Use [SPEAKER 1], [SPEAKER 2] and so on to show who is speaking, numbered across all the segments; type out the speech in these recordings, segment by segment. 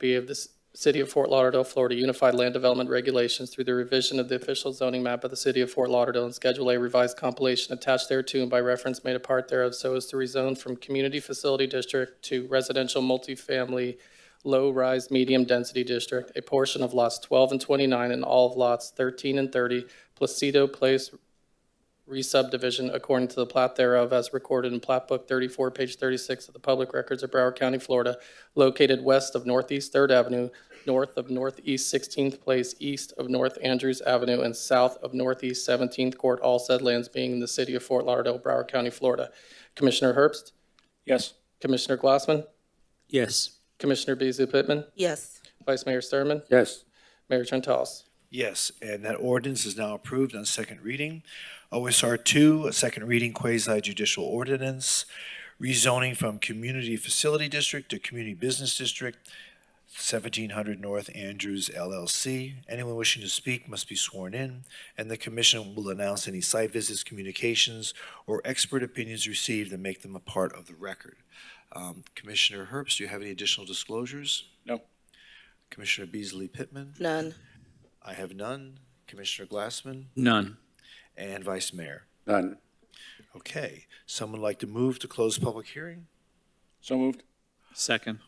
[SPEAKER 1] be of the C- City of Fort Lauderdale, Florida Unified Land Development Regulations through the revision of the official zoning map of the City of Fort Lauderdale and Schedule A revised compilation attached thereto and by reference made a part thereof so as to rezone from Community Facility District to Residential Multifamily Low-Rise Medium Density District, a portion of lots 12 and 29 and all of lots 13 and 30, Placido Place re-subdivision according to the plat thereof as recorded in plat book 34, page 36 of the public records of Broward County, Florida, located west of Northeast Third Avenue, north of Northeast 16th Place, east of North Andrews Avenue, and south of Northeast 17th Court, all said lands being in the city of Fort Lauderdale, Broward County, Florida. Commissioner Herbst?
[SPEAKER 2] Yes.
[SPEAKER 1] Commissioner Glassman?
[SPEAKER 3] Yes.
[SPEAKER 1] Commissioner Beasley Pittman?
[SPEAKER 4] yes,
[SPEAKER 1] Vice Mayor Sturman,
[SPEAKER 2] Yes.
[SPEAKER 1] Mayor Trentalles?
[SPEAKER 5] Yes, and that ordinance is now approved on second reading. OSR two, a second reading quasi judicial ordinance, rezoning from Community Facility District to Community Business District, seventeen hundred North Andrews LLC. Anyone wishing to speak must be sworn in, and the commission will announce any site visits, communications, or expert opinions received and make them a part of the record. Um, Commissioner Herbst, do you have any additional disclosures?
[SPEAKER 2] No.
[SPEAKER 5] Commissioner Beasley Pittman?
[SPEAKER 4] none,
[SPEAKER 5] I have none. Commissioner Glassman
[SPEAKER 3] None.
[SPEAKER 5] and Vice Mayor.
[SPEAKER 2] None.
[SPEAKER 5] Okay, someone like to move to close public hearing?
[SPEAKER 2] So moved.
[SPEAKER 3] Second.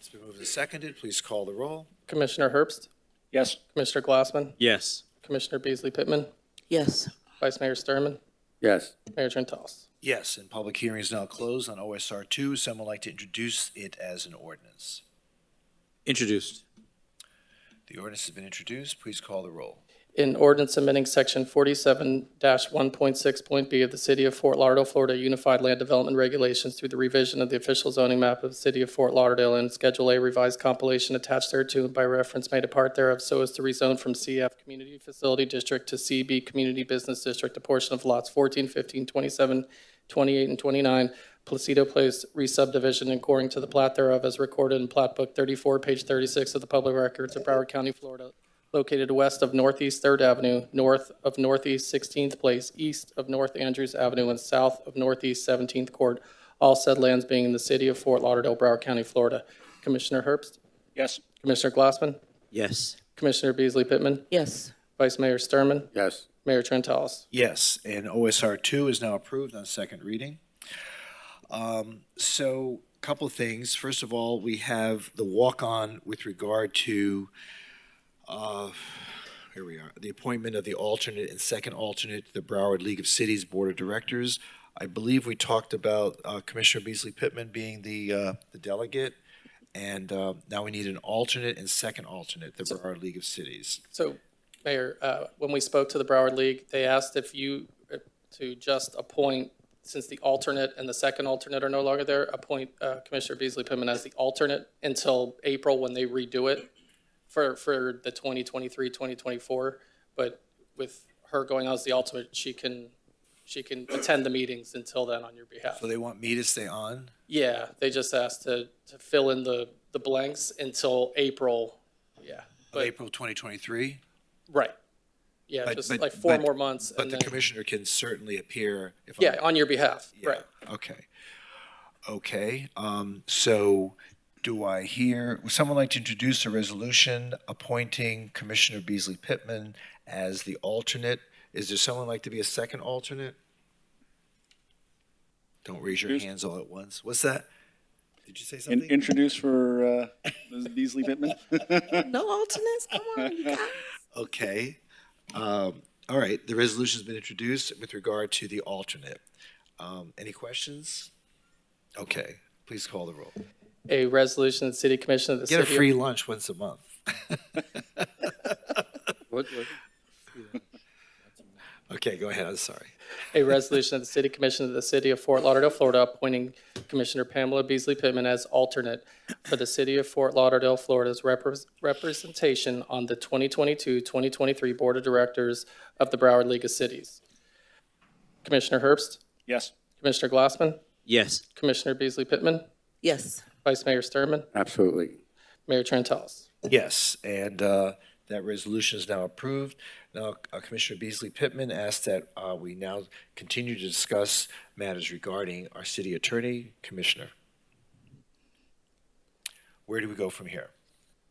[SPEAKER 5] It's been moved and seconded. Please call the roll.
[SPEAKER 1] Commissioner Herbst?
[SPEAKER 2] Yes.
[SPEAKER 1] Commissioner Glassman?
[SPEAKER 3] Yes.
[SPEAKER 1] Commissioner Beasley Pittman?
[SPEAKER 4] yes,
[SPEAKER 1] Vice Mayor Sturman,
[SPEAKER 2] Yes.
[SPEAKER 1] Mayor Trentalles?
[SPEAKER 5] Yes, and public hearing is now closed on OSR two. Someone like to introduce it as an ordinance.
[SPEAKER 3] Introduced.
[SPEAKER 5] The ordinance has been introduced. Please call the roll.
[SPEAKER 1] In ordinance amending section forty-seven one point six point B of the City of Fort Lauderdale, Florida Unified Land Development Regulations through the revision of the official zoning map of the City of Fort Lauderdale and Schedule A revised compilation attached thereto and by reference made a part thereof so as to rezone from CF Community Facility District to CB Community Business District a portion of lots 14, 15, 27, 28, and twenty-nine Placido Place re-subdivision according to the plat thereof as recorded in plat book thirty-four, page thirty-six of the public records of Broward County, Florida, located west of Northeast Third Avenue, north of Northeast Sixteenth Place, east of North Andrews Avenue, and south of Northeast Seventeenth Court, all said lands being in the city of Fort Lauderdale, Broward County, Florida. Commissioner Herbst,
[SPEAKER 2] Yes.
[SPEAKER 1] Commissioner Glassman,
[SPEAKER 3] Yes.
[SPEAKER 1] Commissioner Beasley Pittman,
[SPEAKER 4] yes,
[SPEAKER 1] Vice Mayor Sturman,
[SPEAKER 2] Yes.
[SPEAKER 1] Mayor Trentalis.
[SPEAKER 5] Yes, and OSR two is now approved on second reading. Um, so, a couple of things. First of all, we have the walk-on with regard to, uh, here we are, the appointment of the alternate and second alternate to the Broward League of Cities Board of Directors. I believe we talked about uh, Commissioner Beasley Pittman being the, uh, the delegate, and uh, now we need an alternate and second alternate, the Broward League of Cities.
[SPEAKER 1] So, Mayor, uh, when we spoke to the Broward League, they asked if you, uh, to just appoint, since the alternate and the second alternate are no longer there, appoint uh, Commissioner Beasley Pittman as the alternate until April when they redo it for, for the 2023, 2024. But with her going out as the alternate, she can, she can attend the meetings until then on your behalf.
[SPEAKER 5] So they want me to stay on?
[SPEAKER 1] Yeah, they just asked to, to fill in the, the blanks until April. Yeah.
[SPEAKER 5] of
[SPEAKER 1] But-
[SPEAKER 5] April 2023,
[SPEAKER 1] Right. Yeah,
[SPEAKER 5] But-
[SPEAKER 1] just
[SPEAKER 5] but-
[SPEAKER 1] like four
[SPEAKER 5] but-
[SPEAKER 1] more months
[SPEAKER 5] but
[SPEAKER 1] and
[SPEAKER 5] the
[SPEAKER 1] then,
[SPEAKER 5] commissioner can certainly appear if I'm.
[SPEAKER 1] yeah, on your behalf,
[SPEAKER 5] Yeah,
[SPEAKER 1] right.
[SPEAKER 5] Okay. Okay, um, so do I hear, would someone like to introduce a resolution appointing Commissioner Beasley Pittman as the alternate? Is there someone like to be a second alternate? Don't raise your
[SPEAKER 2] Introduce-
[SPEAKER 5] hands all at once. What's that? Did you say
[SPEAKER 2] In-
[SPEAKER 5] something?
[SPEAKER 2] introduce for uh, Ms. Beasley Pittman.
[SPEAKER 4] no alternates, come on, you guys.
[SPEAKER 5] Okay. Um, all right, the resolution's been introduced with regard to the alternate. Um, any questions? Okay, please call the roll.
[SPEAKER 1] A resolution of the City Commission of the
[SPEAKER 5] Get a
[SPEAKER 1] City.
[SPEAKER 5] free
[SPEAKER 1] of-
[SPEAKER 5] lunch once a month. Okay, go ahead, I'm sorry.
[SPEAKER 1] A resolution of the City Commission of the City of Fort Lauderdale, Florida, appointing Commissioner Pamela Beasley Pittman as alternate for the City of Fort Lauderdale, Florida's repres- representation on the 2022-2023 Board of Directors of the Broward League of Cities. Commissioner Herbst,
[SPEAKER 2] Yes.
[SPEAKER 1] Commissioner Glassman,
[SPEAKER 3] Yes.
[SPEAKER 1] Commissioner Beasley Pittman,
[SPEAKER 4] yes,
[SPEAKER 1] Vice Mayor Sturman,
[SPEAKER 2] Absolutely.
[SPEAKER 1] Mayor Trentalles.
[SPEAKER 5] Yes, and uh, that resolution is now approved. Now, uh, Commissioner Beasley Pittman asked that uh, we now continue to discuss matters regarding our city attorney, Commissioner. Where do we go from here?